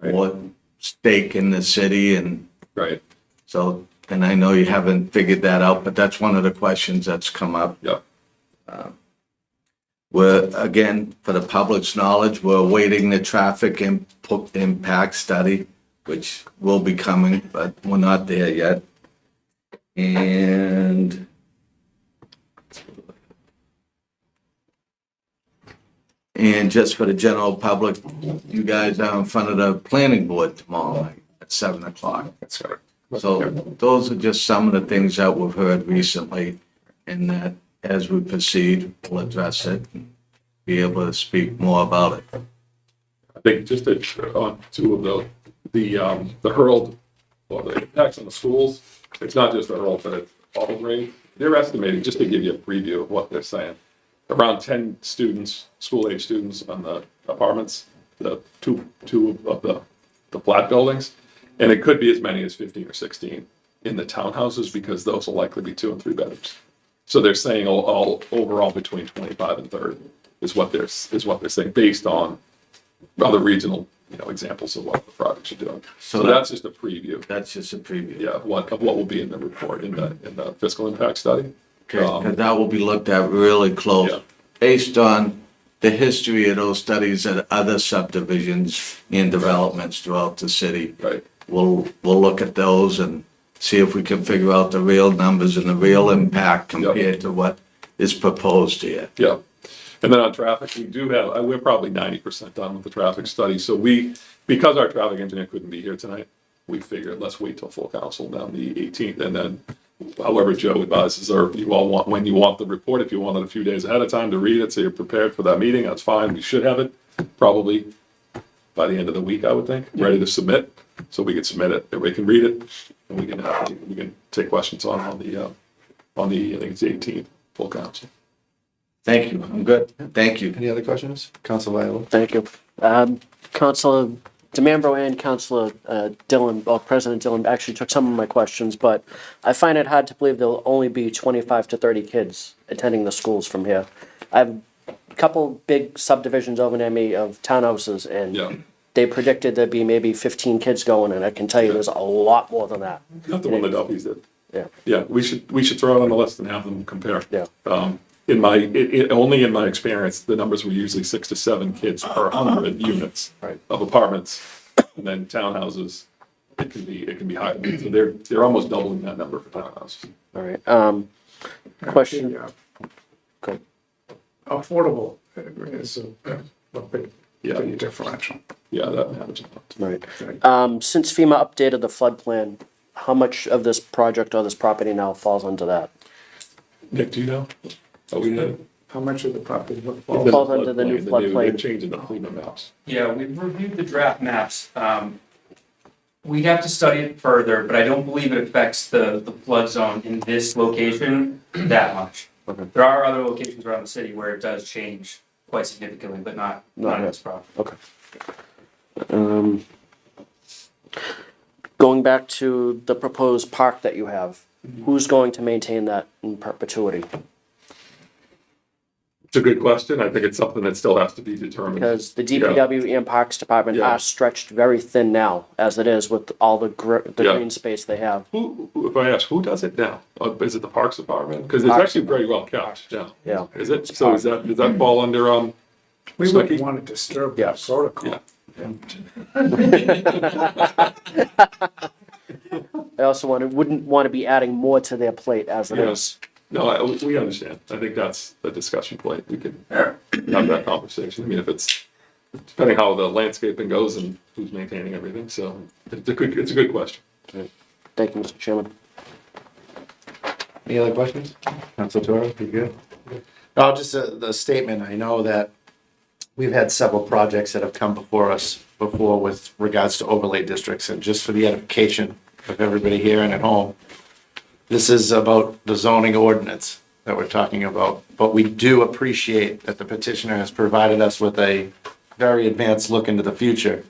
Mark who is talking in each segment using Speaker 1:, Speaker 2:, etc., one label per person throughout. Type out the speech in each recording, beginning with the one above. Speaker 1: what stake in the city and
Speaker 2: Right.
Speaker 1: so, and I know you haven't figured that out, but that's one of the questions that's come up. Um,
Speaker 2: Yep.
Speaker 1: We're, again, for the public's knowledge, we're awaiting the traffic input impact study, which will be coming, but we're not there yet. And and just for the general public, you guys are in front of the planning board tomorrow night at seven o'clock.
Speaker 2: That's right.
Speaker 1: So those are just some of the things that we've heard recently, and that as we proceed, we'll address it, and be able to speak more about it.
Speaker 2: I think just to, on two of the, the, um, the hurled, or the impacts on the schools, it's not just the hurled, but it's all grade. They're estimating, just to give you a preview of what they're saying, around ten students, school age students on the apartments, the two, two of the, the flat buildings. And it could be as many as fifteen or sixteen in the townhouses because those will likely be two and three bedrooms. So they're saying all, all overall between twenty-five and thirty is what they're, is what they're saying based on other regional, you know, examples of what the projects are doing.
Speaker 1: So
Speaker 2: So
Speaker 1: that-
Speaker 2: that's just a preview,
Speaker 1: That's just a preview.
Speaker 2: yeah, of what, of what will be in the report, in the, in the fiscal impact study.
Speaker 1: Okay,
Speaker 2: Um,
Speaker 1: 'cause that will be looked at really close,
Speaker 2: Yeah.
Speaker 1: based on the history of those studies at other subdivisions and developments throughout the city.
Speaker 2: Right,
Speaker 1: We'll, we'll look at those and see if we can figure out the real numbers and the real impact compared to what is proposed here.
Speaker 2: yeah. And then on traffic, we do have, uh, we're probably ninety percent done with the traffic study, so we, because our traffic engineer couldn't be here tonight, we figured, let's wait till full council down the eighteenth, and then however Joe advises, or you all want, when you want the report, if you want it a few days ahead of time to read it, so you're prepared for that meeting, that's fine, we should have it, probably by the end of the week, I would think, ready to submit, so we can submit it, everybody can read it, and we can have, we can take questions on, on the, uh, on the, I think it's eighteenth, full council.
Speaker 1: Thank you, I'm good, thank you.
Speaker 3: Any other questions? Council Viola?
Speaker 4: Thank you. Um, Councilor DeMambro and Councilor uh, Dillon, well, President Dillon actually took some of my questions, but I find it hard to believe there'll only be 25 to 30 kids attending the schools from here. I have a couple big subdivisions over near me of townhouses,
Speaker 2: Yeah.
Speaker 4: and they predicted there'd be maybe 15 kids going, and I can tell you there's a lot more than that.
Speaker 2: Not the one that Duffy's did.
Speaker 4: Yeah,
Speaker 2: Yeah, we should, we should throw it on the list and have them compare.
Speaker 4: Yeah.
Speaker 2: Um, in my, it, it, only in my experience, the numbers were usually six to seven kids per hundred units
Speaker 3: Right.
Speaker 2: of apartments. And then townhouses, it can be, it can be higher. So they're, they're almost doubling that number for townhouses.
Speaker 4: all right. Um, Question,
Speaker 5: Yeah,
Speaker 4: go ahead.
Speaker 5: affordable uh, is a, a big,
Speaker 2: Yeah.
Speaker 5: big differential.
Speaker 2: Yeah, that matters. a lot.
Speaker 4: Right.
Speaker 5: Right.
Speaker 4: Um, since FEMA updated the flood plan, how much of this project or this property now falls under that?
Speaker 2: Nick, do you know? Oh, we know.
Speaker 5: How much of the property would
Speaker 4: It
Speaker 5: fall?
Speaker 4: falls under the new
Speaker 2: They're
Speaker 4: floodplain.
Speaker 2: changing the FEMA maps.
Speaker 6: Yeah, we've reviewed the draft maps. Um, We have to study it further, but I don't believe it affects the, the flood zone in this location that much. There are other locations around the city where it does change quite significantly, but not, not in this property.
Speaker 4: Um, going back to the proposed park that you have, who's going to maintain that in perpetuity?
Speaker 2: It's a good question. I think it's something that still has to be determined.
Speaker 4: Because the DPW and Parks Department
Speaker 2: Yeah.
Speaker 4: are stretched very thin now, as it is with all the gr- the
Speaker 2: Yeah.
Speaker 4: green space they have.
Speaker 2: Who, who- if I ask, who does it now? Uh, Is it the Parks Department? Because it's
Speaker 4: Parks
Speaker 2: actually very well kept now.
Speaker 4: Yeah. Mm-hmm.
Speaker 2: Is it? So is that, does that fall under, um,
Speaker 5: We
Speaker 2: Snooki?
Speaker 5: wouldn't want to disturb
Speaker 4: Yeah.
Speaker 5: the protocol.
Speaker 2: Yeah.
Speaker 4: I also want to, wouldn't want to be adding more to their plate as it is.
Speaker 2: yes. No, I, we understand. I think that's the discussion point. We could have that conversation. I mean, if it's, depending how the landscaping goes and who's maintaining everything. So it's a good, it's a good question.
Speaker 4: Thank you, Mr. Chairman.
Speaker 3: Any other questions? Council Toro, you good? No, just a, the statement. I know that we've had several projects that have come before us before with regards to overlay districts and just for the edification of everybody here and at home. This is about the zoning ordinance that we're talking about, but we do appreciate that the petitioner has provided us with a very advanced look into the future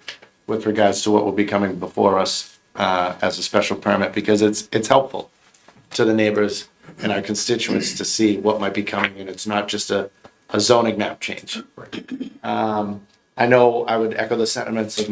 Speaker 3: with regards to what will be coming before us uh, as a special permit because it's, it's helpful to the neighbors and our constituents to see what might be coming, and it's not just a, a zoning map change. Um, I know I would echo the sentiments of